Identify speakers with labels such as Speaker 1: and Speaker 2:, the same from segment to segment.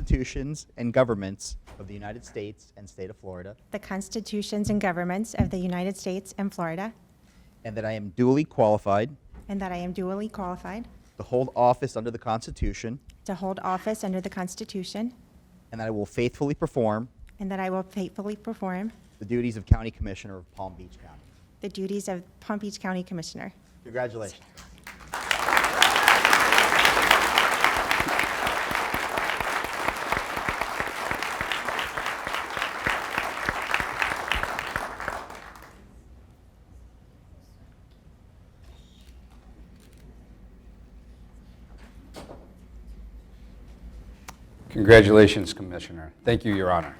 Speaker 1: constitutions and governments of the United States and state of Florida,
Speaker 2: the constitutions and governments of the United States and Florida,
Speaker 1: and that I am duly qualified
Speaker 2: and that I am duly qualified
Speaker 1: to hold office under the Constitution,
Speaker 2: to hold office under the Constitution,
Speaker 1: and that I will faithfully perform
Speaker 2: and that I will faithfully perform
Speaker 1: the duties of County Commissioner of Palm Beach County.
Speaker 2: the duties of Palm Beach County Commissioner.
Speaker 1: Congratulations.
Speaker 3: Congratulations, Commissioner. Thank you, Your Honor.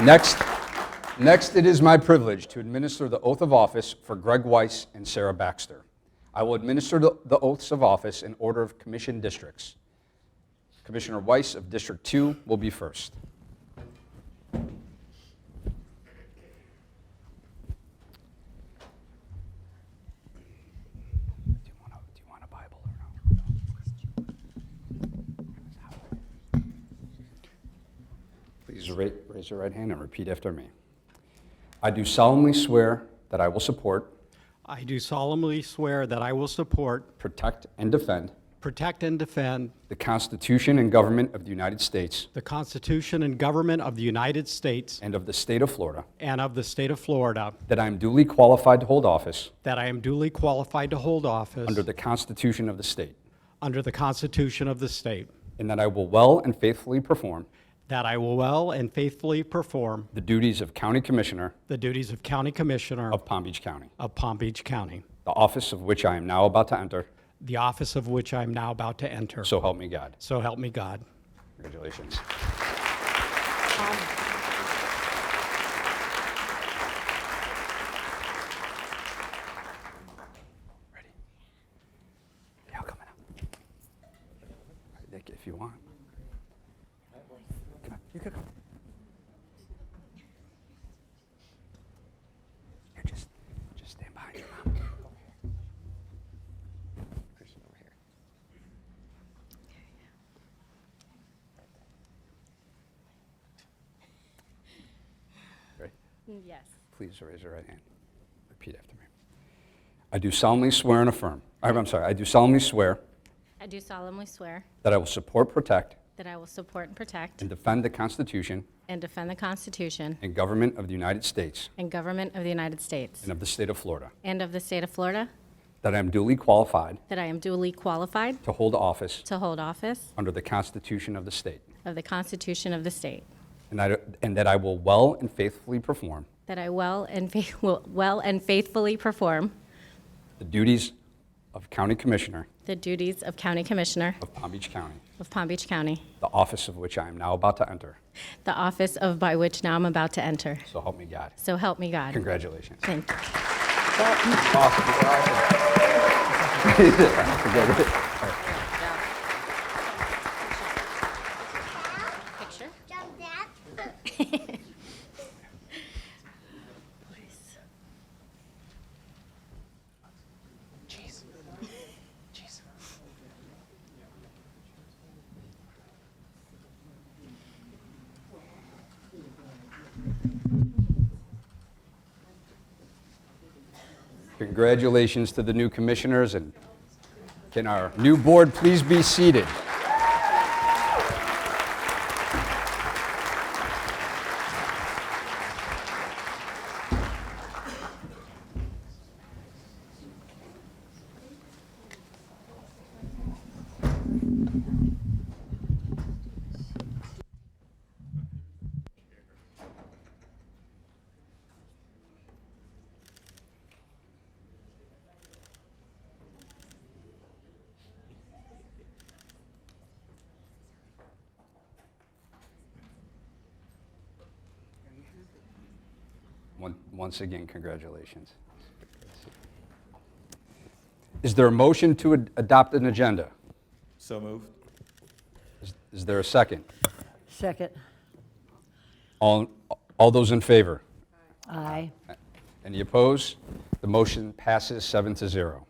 Speaker 3: Next, next, it is my privilege to administer the oath of office for Greg Weiss and Sarah Baxter. I will administer the the oaths of office in order of commission districts. Commissioner Weiss of District 2 will be first. Do you want a, Oh, do you want a Bible or no? Please ra- raise your right hand and repeat after me. I do solemnly swear that I will support,
Speaker 4: I do solemnly swear that I will support,
Speaker 3: protect, and defend
Speaker 4: protect, and defend
Speaker 3: the Constitution and government of the United States
Speaker 4: the Constitution and government of the United States
Speaker 3: and of the state of Florida,
Speaker 4: and of the state of Florida,
Speaker 3: that I am duly qualified to hold office
Speaker 4: that I am duly qualified to hold office
Speaker 3: under the Constitution of the state,
Speaker 4: under the Constitution of the state,
Speaker 3: and that I will well and faithfully perform
Speaker 4: that I will well and faithfully perform
Speaker 3: the duties of County Commissioner
Speaker 4: the duties of County Commissioner
Speaker 3: of Palm Beach County,
Speaker 4: of Palm Beach County,
Speaker 3: the office of which I am now about to enter.
Speaker 4: the office of which I am now about to enter.
Speaker 3: So help me God.
Speaker 4: So help me God.
Speaker 3: Congratulations. Ready? Yeah, I'll come in. All right, Nick, if you want. Come on, you could come. Here, just, just stand behind your mom. Kristen, over here. Ready?
Speaker 5: Yes.
Speaker 3: Please raise your right hand. Repeat after me. I do solemnly swear and affirm, I'm I'm sorry, I do solemnly swear
Speaker 5: I do solemnly swear
Speaker 3: that I will support, protect,
Speaker 5: that I will support and protect
Speaker 3: and defend the Constitution
Speaker 5: and defend the Constitution
Speaker 3: and government of the United States
Speaker 5: and government of the United States
Speaker 3: and of the state of Florida,
Speaker 5: and of the state of Florida,
Speaker 3: that I am duly qualified
Speaker 5: that I am duly qualified
Speaker 3: to hold office
Speaker 5: to hold office
Speaker 3: under the Constitution of the state,
Speaker 5: of the Constitution of the state,
Speaker 3: and I- and that I will well and faithfully perform
Speaker 5: that I well and fa- will- well and faithfully perform
Speaker 3: the duties of County Commissioner
Speaker 5: the duties of County Commissioner
Speaker 3: of Palm Beach County,
Speaker 5: of Palm Beach County,
Speaker 3: the office of which I am now about to enter.
Speaker 5: the office of by which now I'm about to enter.
Speaker 3: So help me God.
Speaker 5: So help me God.
Speaker 3: Congratulations.
Speaker 5: Thank you.
Speaker 3: Awesome.
Speaker 5: Picture?
Speaker 6: Jump that.
Speaker 3: Congratulations to the new commissioners, and can our new board please be seated? One- Once again, congratulations. Is there a motion to ad- adopt an agenda?
Speaker 7: So moved.
Speaker 3: Is- Is there a second?
Speaker 8: Second.
Speaker 3: All all those in favor?
Speaker 8: Aye.
Speaker 3: Any opposed? The motion passes seven to zero.